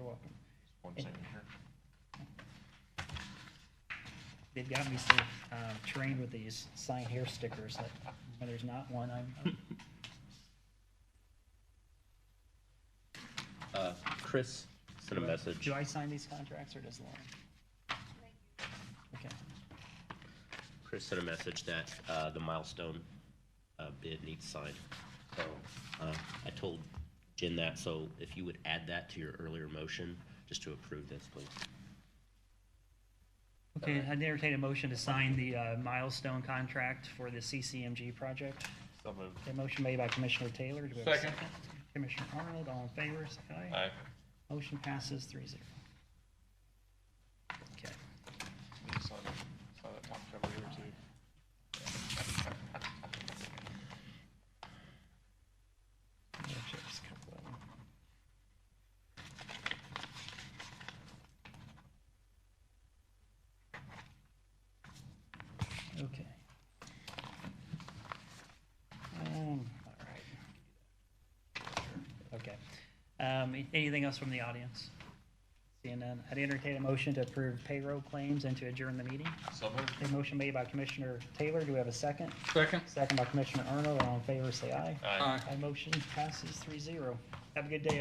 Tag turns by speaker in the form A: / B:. A: welcome.
B: One signature.
A: They've got me so um, trained with these sign here stickers that when there's not one, I'm, I'm-
C: Uh, Chris sent a message.
A: do I sign these contracts or does Lauren? Okay,
C: Chris sent a message that uh, the milestone uh, bid needs signed. So uh, I told Jen that, so if you would add that to your earlier motion, just to approve this, please.
A: okay, I entertain a motion to sign the uh, milestone contract for the CCMG project.
B: So moved.
A: A motion made by Commissioner Taylor. Do we have a
B: Second.
A: Commissioner Arnold, all in favor, say aye.
B: Aye.
A: Motion passes three zero. Okay.
B: Need to sign that- sign that top cover here too.
A: I'm gonna check this couple of them. Okay. Um, all right. Okay. Um, a- anything else from the audience? Seeing none, I'd entertain a motion to approve payroll claims and to adjourn the meeting.
B: So moved.
A: A motion made by Commissioner Taylor. Do we have a second?
D: Second.
A: Second by Commissioner Arnold. All in favor, say aye.
B: Aye.
D: Aye.
A: My motion passes three zero. Have a good day.